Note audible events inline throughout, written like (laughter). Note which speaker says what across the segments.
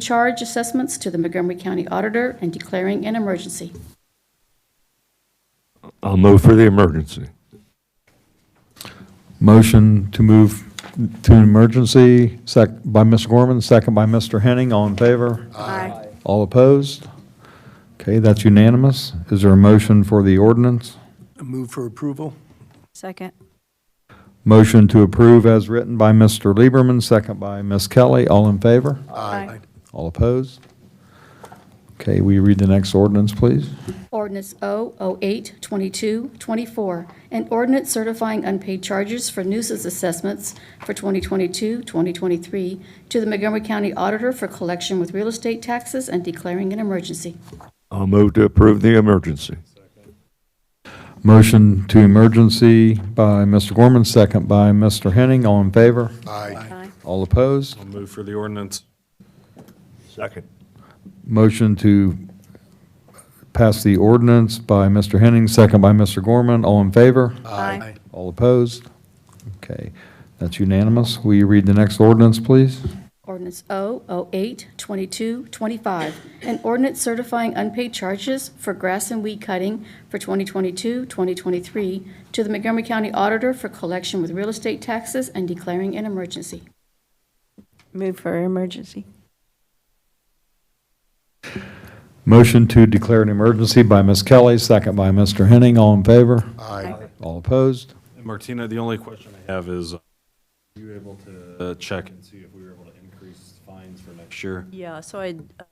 Speaker 1: charge assessments to the Montgomery County Auditor and declaring an emergency.
Speaker 2: I'll move for the emergency.
Speaker 3: Motion to move to an emergency, sec, by Mr. Gorman, second by Mr. Henning, all in favor?
Speaker 1: Aye.
Speaker 3: All opposed? Okay, that's unanimous. Is there a motion for the ordinance?
Speaker 4: Move for approval?
Speaker 5: Second.
Speaker 3: Motion to approve as written by Mr. Lieberman, second by Ms. Kelly, all in favor?
Speaker 5: Aye.
Speaker 3: All opposed? Okay, will you read the next ordinance, please?
Speaker 1: Ordinance O082224, an ordinance certifying unpaid charges for nuisance assessments for 2022-2023 to the Montgomery County Auditor for collection with real estate taxes and declaring an emergency.
Speaker 2: I'll move to approve the emergency.
Speaker 3: Motion to emergency by Mr. Gorman, second by Mr. Henning, all in favor?
Speaker 4: Aye.
Speaker 3: All opposed?
Speaker 6: Move for the ordinance.
Speaker 2: Second.
Speaker 3: Motion to pass the ordinance by Mr. Henning, second by Mr. Gorman. All in favor?
Speaker 5: Aye.
Speaker 3: All opposed? Okay, that's unanimous. Will you read the next ordinance, please?
Speaker 1: Ordinance O082225, an ordinance certifying unpaid charges for grass and weed cutting for 2022-2023 to the Montgomery County Auditor for collection with real estate taxes and declaring an emergency.
Speaker 5: Move for emergency.
Speaker 3: Motion to declare an emergency by Ms. Kelly, second by Mr. Henning. All in favor?
Speaker 4: Aye.
Speaker 3: All opposed?
Speaker 6: Martina, the only question I have is, uh, were you able to uh, check and see if we were able to increase fines for next year?
Speaker 7: Yeah, so I, uh,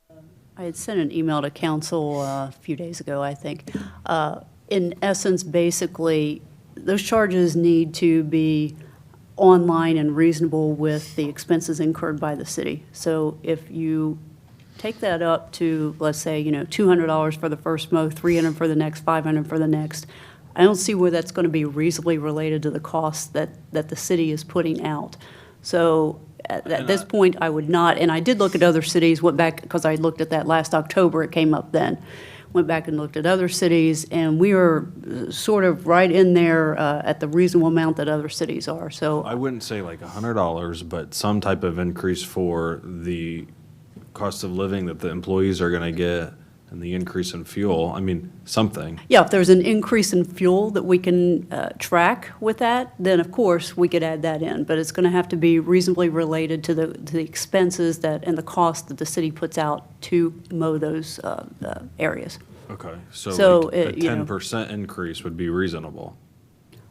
Speaker 7: I had sent an email to council uh, a few days ago, I think. Uh, In essence, basically, those charges need to be online and reasonable with the expenses incurred by the city. So if you take that up to, let's say, you know, $200 for the first mow, 300 for the next, 500 for the next, I don't see where that's going to be reasonably related to the cost that, that the city is putting out. So at at this point, I would not, and I did look at other cities, went back, because I looked at that last October, it came up then. Went back and looked at other cities, and we are uh, sort of right in there uh, at the reasonable amount that other cities are. So
Speaker 6: I wouldn't say like a hundred dollars, but some type of increase for the cost of living that the employees are gonna get and the increase in fuel. I mean, something.
Speaker 7: Yeah, if there's an increase in fuel that we can uh, track with that, then of course, we could add that in. But it's going to have to be reasonably related to the, to the expenses that, and the cost that the city puts out to mow those uh, uh, areas.
Speaker 6: Okay, so
Speaker 7: So,
Speaker 6: like a
Speaker 7: uh, you know-
Speaker 6: ten percent increase would be reasonable.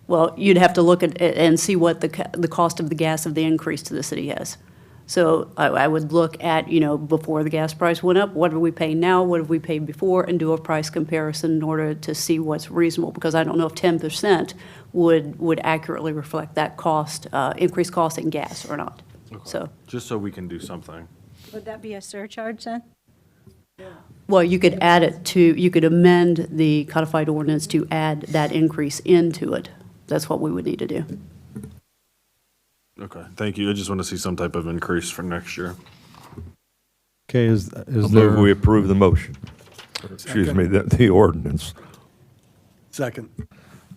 Speaker 7: Well, you'd have to look at, and see what the, ca- the cost of the gas of the increase to the city is. So I, I would look at, you know, before the gas price went up, what do we pay now, what have we paid before, and do a price comparison in order to see what's reasonable, because I don't know if ten percent would, would accurately reflect that cost, uh, increased cost in gas or not. So,
Speaker 6: Just so we can do something.
Speaker 5: Would that be a surcharge then?
Speaker 7: well, you could add it to, you could amend the codified ordinance to add that increase into it. That's what we would need to do.
Speaker 6: Okay, thank you. I just wanna see some type of increase for next year.
Speaker 3: Okay, is, is
Speaker 2: I'll move we
Speaker 3: there,
Speaker 2: approve the motion. Excuse me, the, the ordinance.
Speaker 4: Second.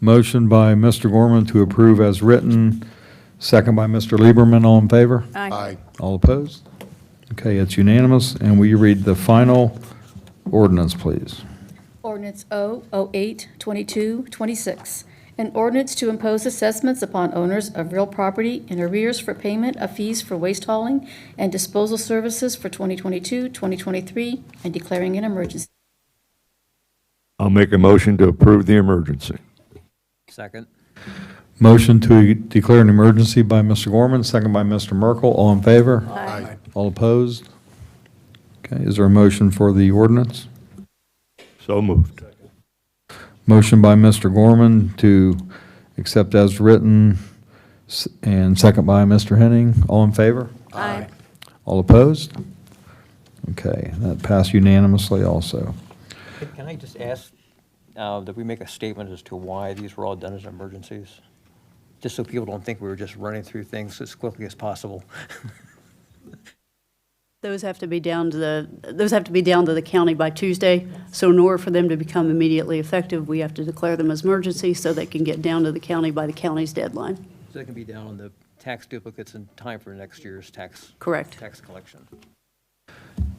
Speaker 3: motion by Mr. Gorman to approve as written, second by Mr. Lieberman. All in favor?
Speaker 4: Aye.
Speaker 3: All opposed? Okay, it's unanimous, and will you read the final ordinance, please?
Speaker 1: Ordinance O082226, an ordinance to impose assessments upon owners of real property in arrears for payment of fees for waste hauling and disposal services for 2022-2023 and declaring an emergency.
Speaker 2: I'll make a motion to approve the emergency.
Speaker 8: Second.
Speaker 3: Motion to declare an emergency by Mr. Gorman, second by Mr. Merkel. All in favor?
Speaker 4: Aye.
Speaker 3: All opposed? Okay, is there a motion for the ordinance?
Speaker 2: So moved.
Speaker 3: Motion by Mr. Gorman to accept as written, s- and second by Mr. Henning. All in favor?
Speaker 5: Aye.
Speaker 3: All opposed? Okay, that passed unanimously also.
Speaker 8: Can- Can I just ask uh, that we make a statement as to why these were all done as emergencies? Just so people don't think we were just running through things as quickly as possible. (laughs)
Speaker 7: Those have to be down to the, those have to be down to the county by Tuesday. So in order for them to become immediately effective, we have to declare them as emergency so they can get down to the county by the county's deadline.
Speaker 8: So they can be down on the tax duplicates in time for next year's tax.
Speaker 7: Correct.
Speaker 8: Tax collection.